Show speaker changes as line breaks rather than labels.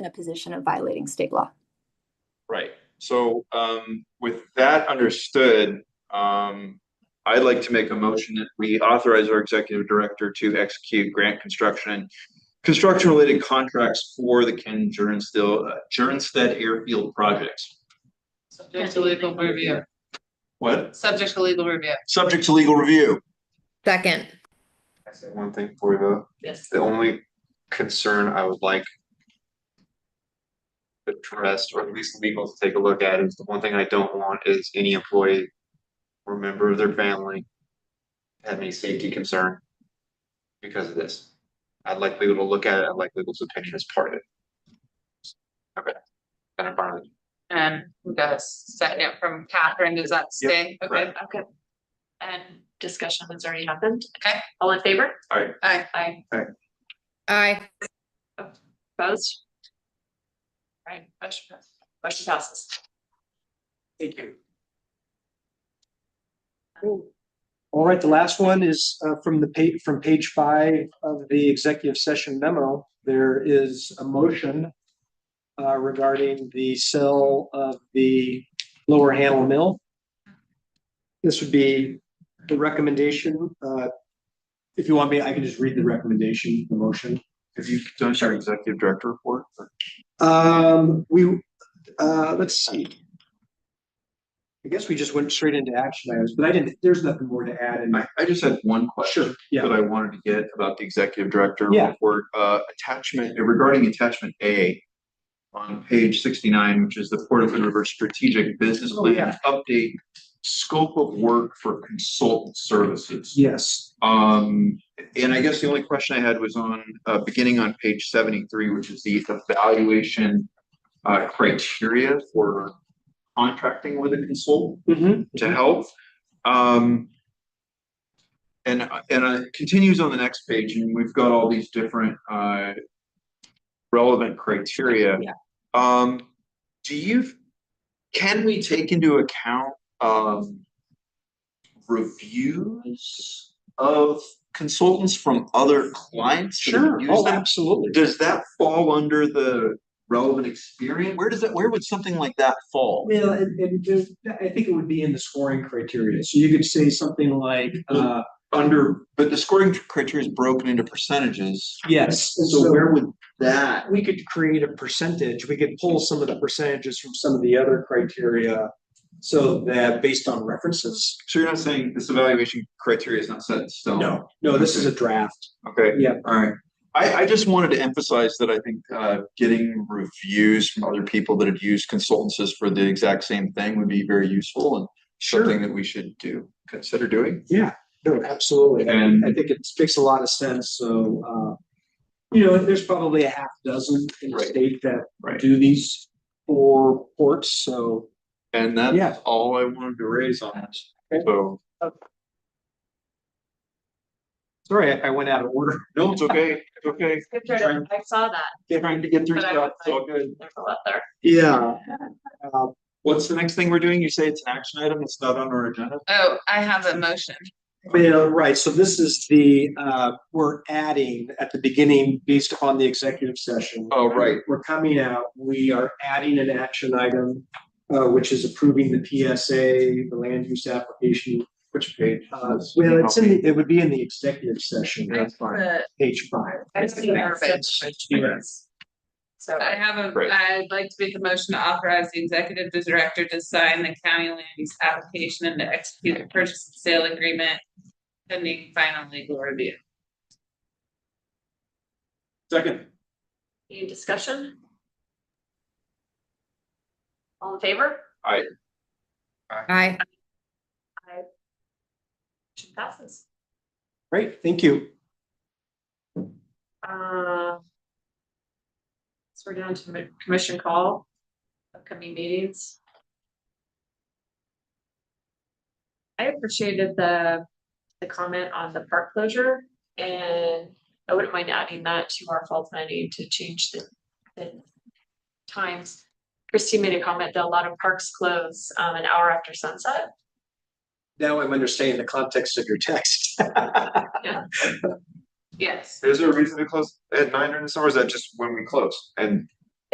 in a position of violating state law.
Right, so um with that understood, um I'd like to make a motion that we authorize our executive director to execute grant construction and construction related contracts for the Ken Jernstill, Jernstead Airfield projects.
Subject to legal review,
What?
subject to legal review.
Subject to legal review.
Second,
I say one thing for you,
Yes.
the only concern I would like. Addressed, or at least legal to take a look at, is the one thing I don't want is any employee. Or member of their family. Have any safety concern. Because of this. I'd like legal to look at it, I'd like legal's opinion as part of it. Okay. Then I'm fine with it.
And we got a second from Catherine, does that stay? Okay, okay.
And discussion has already happened.
Okay.
All in favor?
Aye.
Aye. Aye.
aye.
Opposed? All right, motion pass- motion passes.
Thank you. All right, the last one is uh, from the page, from page five of the executive session memo. There is a motion uh, regarding the sale of the Lower Handle Mill. This would be the recommendation. uh, If you want me, I can just read the recommendation, the motion.
Have you done your executive director report?
Um, we, uh, let's see. I guess we just went straight into action items, but I didn't, there's nothing more to add in.
I I just had one question.
Sure, yeah.
that I wanted to get about the executive director
Yeah.
report, uh, attachment, regarding attachment A. On page sixty-nine, which is the Port of Hood River Strategic Business
Oh,
Plan
yeah.
Update. Scope of work for consultant services.
Yes,
Um, and I guess the only question I had was on, uh, beginning on page seventy-three, which is the evaluation. Uh, criteria for contracting with a consultant
Mhm.
to help. Um. And and uh, it continues on the next page and we've got all these different uh. Relevant criteria.
Yeah.
Um, do you, can we take into account um. Reviews of consultants from other clients? that have
sure.
used
Oh,
them?
absolutely.
Does that fall under the relevant experience? Where does that, where would something like that fall?
Well, and, and there's- I think it would be in the scoring criteria. So you could say something like, uh,
under, but the scoring criteria is broken into percentages.
yes. and
So where would that,
We could create a percentage. We could pull some of the percentages from some of the other criteria. So that based on references.
so you're not saying this evaluation criteria is not set in stone?
No, no, this is a draft.
Okay.
Yeah.
All right. I, I just wanted to emphasize that I think, uh, getting reviews from other people that have used consultancies for the exact same thing would be very useful and something that we should do, consider doing.
Yeah, no, absolutely.
And-
And I think it makes a lot of sense, so, uh, you know, there's probably a half dozen in the
Right.
state that
Right.
do these for ports, so.
And
Yeah.
that's all I wanted to raise on this.
Okay.
So,
Sorry, I I went out of order.
no, it's okay, it's okay.
Good turn. I saw that.
Trying to get through
But I
stuff,
would
it's all good.
There's a lot there.
Yeah. Uh,
What's the next thing we're doing? You say it's an action item, it's not on our agenda?
Oh, I have a motion.
Yeah, right, so this is the, uh, we're adding at the beginning based upon the executive session.
Oh, right.
We're coming out, we are adding an action item, uh, which is approving the PSA, the land use application.
Which page?
Uh, well, it's in, the- it would be in the executive session,
That's fine.
The-
page five.
I see the verbiage. So
I have a,
Great.
I'd like to make a motion to authorize the executive director to sign the county land use application and to execute the purchase and sale agreement pending final legal review.
Second.
any discussion? All in favor?
Aye.
Motion passes.
Great, thank you.
Uh, So we're down to mi- commission call, upcoming meetings. I appreciated the, the comment on the park closure and I wouldn't mind adding that to our fall planning to change the, the times. Christie made a comment that a lot of parks close um, an hour after sunset.
Now I'm understanding the context of your text.
Yes.
Is there a reason to close at nine during the summer? Is that just when we close? And